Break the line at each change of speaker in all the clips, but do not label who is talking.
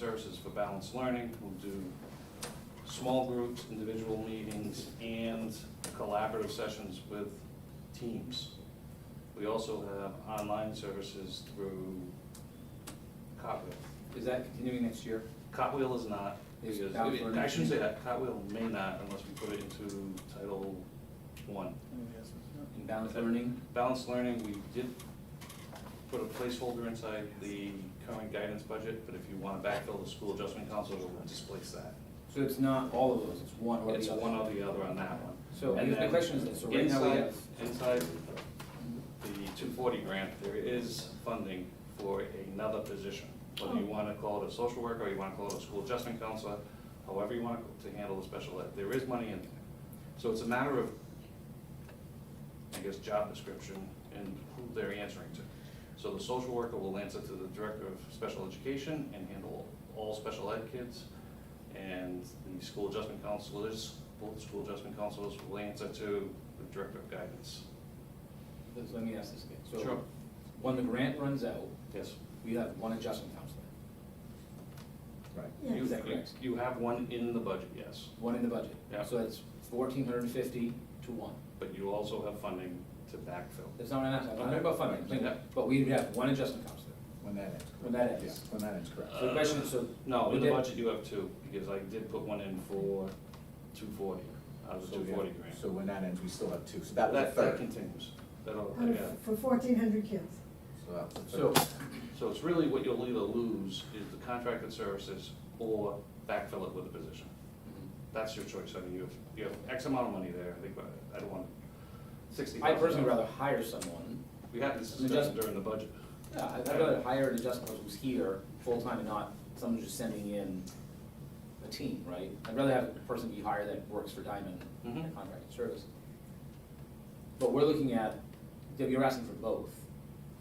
services for balanced learning. We'll do small groups, individual meetings, and collaborative sessions with teams. We also have online services through Cotwheel.
Is that continuing next year?
Cotwheel is not,
Is
because,
bound for-
I shouldn't say that, Cotwheel may not unless we put it into Title One.
In balanced learning?
Balanced learning, we did put a placeholder inside the current guidance budget, but if you want to backfill the school adjustment council, we'll displace that.
So it's not all of those, it's one or the other?
It's one or the other on that one.
So I
And
guess my
then
question is this, so right now we
inside-
have,
Inside the two forty grant, there is funding for another position. Whether you wanna call it a social worker, or you wanna call it a school adjustment counselor, however you want to handle the special ed, there is money in there. So it's a matter of, I guess, job description and who they're answering to. So the social worker will answer to the director of special education and handle all special ed kids. And the school adjustment counselors, both school adjustment counselors will answer to the director of guidance.
let- let me ask this again.
Sure.
So when the grant runs out,
Yes.
we have one adjustment counselor,
Right.
You-
Is that correct?
You have one in the budget, yes,
one in the budget.
Yeah.
So that's fourteen hundred and fifty to one.
but you also have funding to backfill.
That's not what I'm asking, I'm not talking about funding, I'm saying-
Yeah.
but we have one adjustment counselor.
When that ends.
When that ends.
Yeah, When that ends, correct.
So the question is, so.
No,
we
in the
did-
budget you have two, because I did put one in for two forty, out of the
So
two
we have-
forty grant.
So when that ends, we still have two, so that was a
That, that
third.
continues, that'll,
Out
yeah.
of- For fourteen hundred kids.
So that was a
So,
third.
So it's really what you'll either lose is the contracted services or backfill it with a position. That's your choice, I mean, you have, you have X amount of money there, I think, but I don't want sixty
I
thousand.
personally would rather hire someone,
We had this discussion
Adjust-
during the budget.
yeah, I'd I'd rather hire an adjustment counselor who's here, full-time and not someone who's just sending in a team, right? I'd rather have a person be hired that works for Diamond in a
Mhm.
contracted service. But we're looking at, you're asking for both,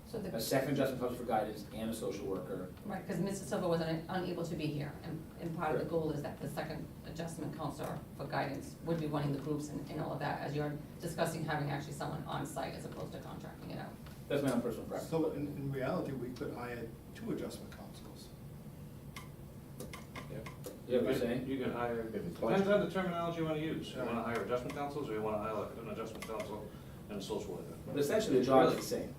So
a
the,
second adjustment counselor for guidance and a social worker.
right, because Mrs. Silva was un- unable to be here, and, and part of the
Correct.
goal is that the second adjustment counselor for guidance would be running the groups and, and all of that, as you're discussing having actually someone on site as opposed to contracting it out.
That's my own personal preference.
So in, in reality, we could hire two adjustment councils.
You know what I'm saying?
You can hire,
If it's
depends
budget.
on the terminology you wanna use, you wanna hire adjustment counselors, or you wanna hire an adjustment counsel and a social worker.
But essentially, the job is the same.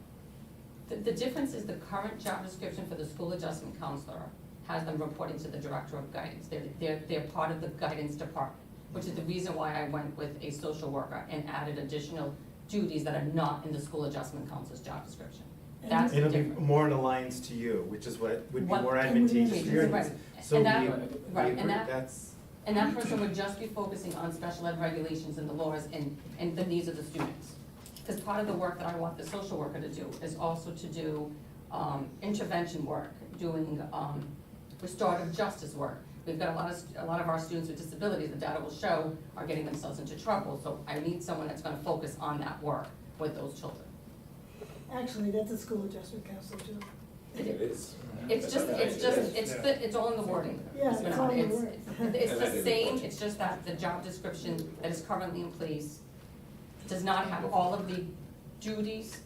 The, the difference is the current job description for the school adjustment counselor has them reporting to the director of guidance. They're, they're, they're part of the guidance department, which is the reason why I went with a social worker and added additional duties that are not in the school adjustment counselor's job description. That's the
It'll be
difference.
more in alliance to you, which is what would be
What-
more
and
advantageous for
we-
your
right.
needs. So
And
we,
that-
we
right, and
agree,
that-
that's,
And that person would just be focusing on special ed regulations and the laws and, and the needs of the students. Because part of the work that I want the social worker to do is also to do, um, intervention work, doing, um, restorative justice work. We've got a lot of, st- a lot of our students with disabilities, the data will show, are getting themselves into trouble, so I need someone that's gonna focus on that work with those children.
Actually, that's a school adjustment counselor too.
It is.
It's just, it's just, it's,
Yeah.
the- it's all in the wording.
Yeah,
It's
it's
not-
all in the
it's-
wording.
It's it's the
Yeah.
same, it's just that the job description that is currently in place does not have all of the duties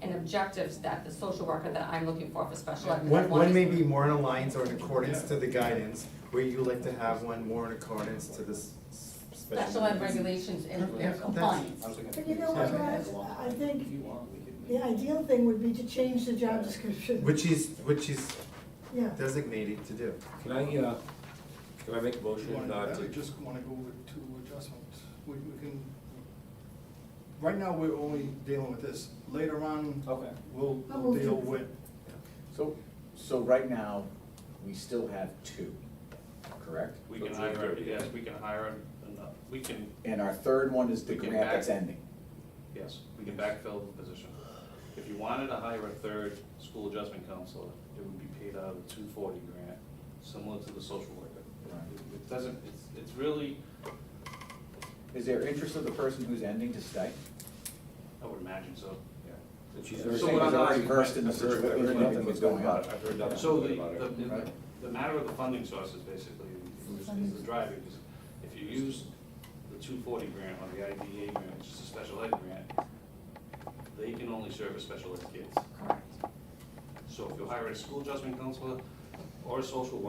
and objectives that the social worker that I'm looking for for special ed.
one, one may
is-
be more in alliance or in accordance to the guidance, where you like to have one more in accordance to this s- special.
Special ed
needs.
regulations and
Yeah, that's-
compliance.
I was looking at-
But you know what, Raj, I
If
think
you want, we could
the
make-
ideal thing would be to change the job description.
Which she's, which she's
Yeah,
designated to do.
Can I, uh, can I make a
You wanna
motion
do
uh,
that, or
to,
you just wanna go with two adjustments? We, we can, right now, we're only dealing with this. Later on,
Okay.
we'll,
Oh,
we'll
we'll
deal
fix it.
with,
So, so right now, we still have two, correct?
We can hire, yes, we can hire, another- we can,
And our third one is the
We can
grant that's
back-
ending.
yes, we can backfill the position. If you wanted to hire a third school adjustment counselor, it would be paid out of the two forty grant, similar to the social worker.
Right.
It- It doesn't, it's, it's really,
Is there interest of the person who's ending to stay?
I would imagine so.
that she's
So
very.
what I'm
already
asking-
versed in the
I've heard- I've
situation,
heard
everything
nothing
that's
but
going
good
on.
about it, I've heard nothing
So
but
the,
good about it.
the- the,
right?
the matter of the funding source is basically, is is the driver, because if you use the two forty grant or the IDA grant, which is a special ed grant, they can only serve as special ed kids.
Correct.
So if you hire a school adjustment counselor or a social worker,